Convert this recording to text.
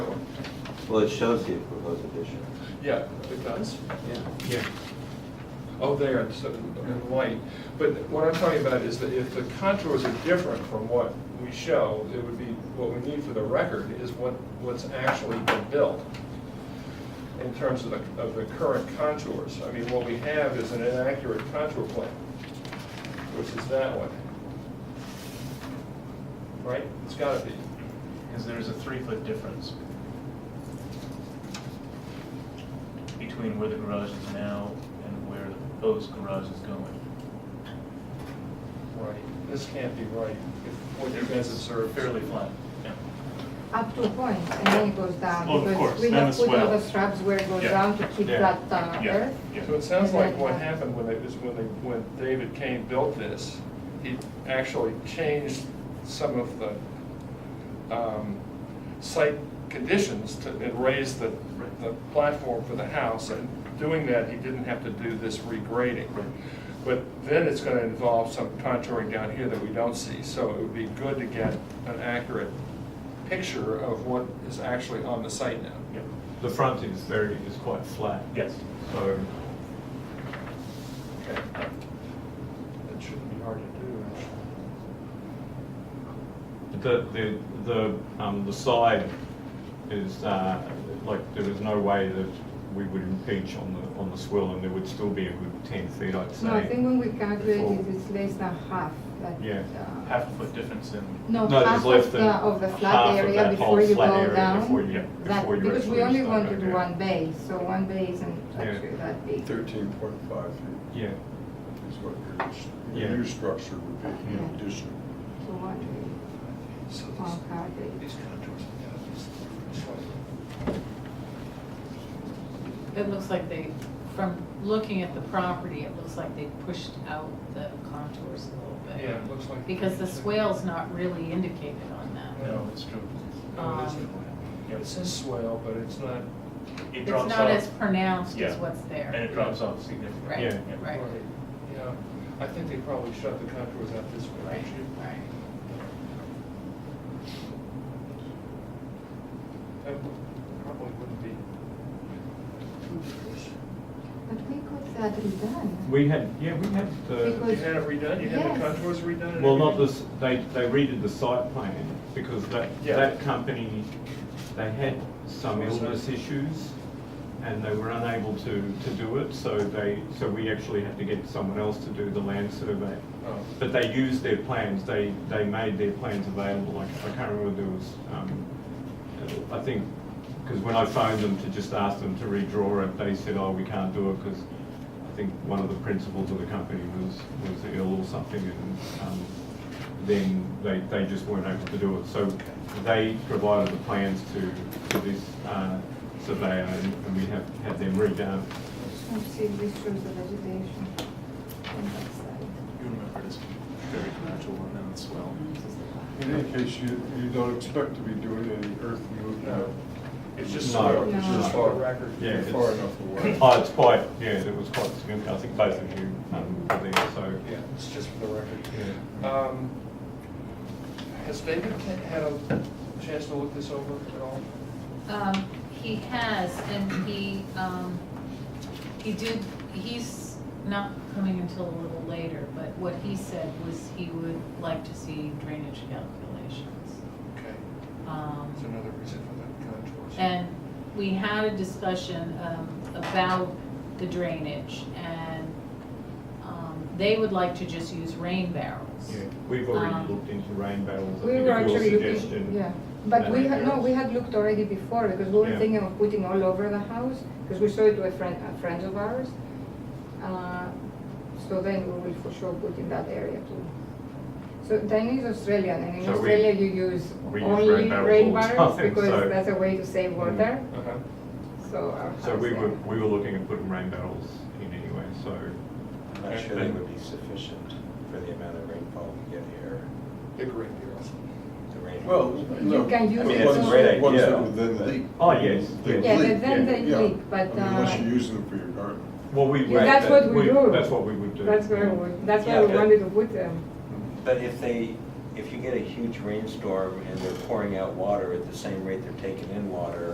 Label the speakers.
Speaker 1: Well, it shows the proposed addition.
Speaker 2: Yeah, it does.
Speaker 1: Yeah.
Speaker 3: Yeah.
Speaker 2: Oh, there, so, in light. But what I'm talking about is that if the contours are different from what we show, it would be, what we need for the record is what, what's actually been built in terms of the, of the current contours. I mean, what we have is an inaccurate contour plan, which is that one. Right? It's gotta be.
Speaker 3: Because there's a three-foot difference between where the garage is now and where the proposed garage is going.
Speaker 2: Right. This can't be right. If What you guys observed.
Speaker 3: Fairly flat, yeah.
Speaker 4: Up to a point, and then it goes down.
Speaker 3: Oh, of
Speaker 4: because
Speaker 3: course,
Speaker 4: We
Speaker 3: then
Speaker 4: have
Speaker 3: it's
Speaker 4: put all
Speaker 3: well.
Speaker 4: the shrubs where it goes
Speaker 3: Yeah.
Speaker 4: down to keep
Speaker 3: Yeah.
Speaker 4: that uh,
Speaker 3: Yeah.
Speaker 4: earth.
Speaker 3: Yeah.
Speaker 2: So it sounds like what happened when it was, when they, when David Kane built this, he actually changed some of the, um, site conditions to, and raised the, the platform for the house, and doing that, he didn't have to do this regrading.
Speaker 3: Right.
Speaker 2: But then it's gonna involve some contouring down here that we don't see, so it would be good to get an accurate picture of what is actually on the site now.
Speaker 3: Yeah.
Speaker 5: The frontage is very, is quite flat.
Speaker 3: Yes.
Speaker 5: So,
Speaker 2: Okay. That shouldn't be hard to do, actually.
Speaker 5: the, the, the, um, the side is, uh, like, there is no way that we would impeach on the, on the swill, and there would still be a good ten feet, I'd say.
Speaker 4: No, I think when we
Speaker 5: before-
Speaker 4: calculate it, it's less than half. that,
Speaker 5: Yeah.
Speaker 4: uh,
Speaker 3: Half a foot difference in,
Speaker 4: No,
Speaker 5: No, there's
Speaker 4: half
Speaker 5: less
Speaker 4: of the,
Speaker 5: than
Speaker 4: of the
Speaker 5: half of
Speaker 4: flat area
Speaker 5: that whole
Speaker 4: before you
Speaker 5: flat
Speaker 4: go
Speaker 5: area
Speaker 4: down.
Speaker 5: before you-
Speaker 4: That-
Speaker 5: before you
Speaker 4: Because we
Speaker 5: actually
Speaker 4: only
Speaker 5: start
Speaker 4: want to
Speaker 5: out,
Speaker 4: do
Speaker 5: yeah.
Speaker 4: one bay, so one bay isn't
Speaker 5: Yeah.
Speaker 4: actually that big.
Speaker 6: Thirteen point five feet
Speaker 5: Yeah,
Speaker 6: is what your-
Speaker 5: Yeah.
Speaker 6: your new structure would be
Speaker 4: Yeah.
Speaker 6: in addition.
Speaker 4: So one bay,
Speaker 2: So
Speaker 4: one car bay.
Speaker 2: these contours,
Speaker 7: It looks like they, from looking at the property, it looks like they pushed out the contours a little bit.
Speaker 2: Yeah, it looks like.
Speaker 7: Because the swale's not really indicated on that.
Speaker 3: no, it's true.
Speaker 2: No, it
Speaker 7: Um,
Speaker 2: isn't.
Speaker 3: Yeah.
Speaker 2: It says swale, but it's not.
Speaker 3: It
Speaker 7: It's
Speaker 3: drops
Speaker 7: not as
Speaker 3: off,
Speaker 7: pronounced as
Speaker 3: Yeah.
Speaker 7: what's
Speaker 3: and
Speaker 7: there.
Speaker 3: it drops off significantly.
Speaker 7: Right,
Speaker 5: Yeah.
Speaker 7: right,
Speaker 2: Yeah, I think they probably shut the contours out this way,
Speaker 7: right,
Speaker 2: actually.
Speaker 7: right.
Speaker 2: That would- probably wouldn't be.
Speaker 7: Hmm.
Speaker 4: But we got that redone.
Speaker 5: we had, yeah, we had the,
Speaker 4: Because-
Speaker 2: You had it redone, you had the
Speaker 4: Yes.
Speaker 2: contours redone? and
Speaker 5: well, not
Speaker 2: everything?
Speaker 5: this, they, they redid the site plan, because that,
Speaker 2: Yeah.
Speaker 5: that company, they had some illness issues, and they were unable to, to do it, so they, so we actually had to get someone else to do the land survey.
Speaker 2: Oh.
Speaker 5: But they used their plans, they, they made their plans available, like, I can't remember, there was, um, I think, because when I phoned them to just ask them to redraw it, they said, oh, we can't do it, because I think one of the principals of the company was, was ill or something, and, um, then they, they just weren't able to do it. So they provided the plans to, to this, uh, surveyor, and and we have had them redone.
Speaker 4: Let's see if this shows the vegetation on that side.
Speaker 3: You remember this very natural one and as well.
Speaker 4: This is the back.
Speaker 6: In any case, you, you don't expect to be doing any earth movement.
Speaker 2: No. It's just
Speaker 5: No,
Speaker 2: swale,
Speaker 4: no.
Speaker 2: it's just for
Speaker 6: Far-
Speaker 2: the record.
Speaker 5: Yeah,
Speaker 6: you're
Speaker 5: it's-
Speaker 6: Far enough away.
Speaker 5: Oh, it's quite, yeah, it was quite significant, I think both of you, um, were there, so.
Speaker 2: Yeah, it's just for the record.
Speaker 5: Yeah.
Speaker 2: Um, Has David Kent had a chance to look this over at all?
Speaker 7: Um, he has, and he, um, he did, he's not coming until a little later, but what he said was he would like to see drainage calculations.
Speaker 2: Okay,
Speaker 7: Um,
Speaker 2: that's another reason for that contours.
Speaker 7: And we had a discussion um, about the drainage, and um, they would like to just use rain barrels.
Speaker 5: Yeah, we've already
Speaker 7: Um,
Speaker 5: looked into rain barrels, I
Speaker 4: We
Speaker 5: think
Speaker 4: were
Speaker 5: at your
Speaker 4: actually looking,
Speaker 5: suggestion.
Speaker 4: yeah, but we
Speaker 5: Uh,
Speaker 4: had, no, we had looked already before, because we were
Speaker 5: Yeah.
Speaker 4: thinking of putting all over the house, because we showed it to a friend, a friend of ours. Uh, So then we will for sure put in that area too. So Diane is Australian, and in
Speaker 5: So we-
Speaker 4: Australia you use
Speaker 5: we use
Speaker 4: only
Speaker 5: rain barrels
Speaker 4: rain
Speaker 5: all the
Speaker 4: barrels,
Speaker 5: time, so- Mm.
Speaker 4: because that's a way to save water,
Speaker 2: Uh-huh.
Speaker 4: so our house.
Speaker 5: So we were,
Speaker 4: yeah.
Speaker 5: we were looking at putting rain barrels in anyway, so,
Speaker 1: I'm not sure they would be sufficient for the amount of rainfall we get here,
Speaker 2: Big ring barrels.
Speaker 1: the rain.
Speaker 6: Well, no.
Speaker 4: You can use
Speaker 1: I mean, it it's a as- great
Speaker 6: Ones
Speaker 1: idea,
Speaker 6: that would then
Speaker 1: but-
Speaker 6: leak.
Speaker 5: Oh, yes.
Speaker 6: They
Speaker 4: Yeah,
Speaker 5: Yeah,
Speaker 6: leak.
Speaker 4: but then
Speaker 5: yeah,
Speaker 4: they
Speaker 6: Yeah.
Speaker 4: leak, but,
Speaker 6: I mean, Unless
Speaker 4: uh,
Speaker 6: you're using them for your garden.
Speaker 5: well, we.
Speaker 4: Yeah, that's what we do.
Speaker 5: That's what we would do.
Speaker 4: that's where we, that's
Speaker 1: Yeah,
Speaker 4: where we
Speaker 1: but-
Speaker 4: wanted to put um, them.
Speaker 1: But if they, if you get a huge rainstorm and they're pouring out water at the same rate they're taking in water,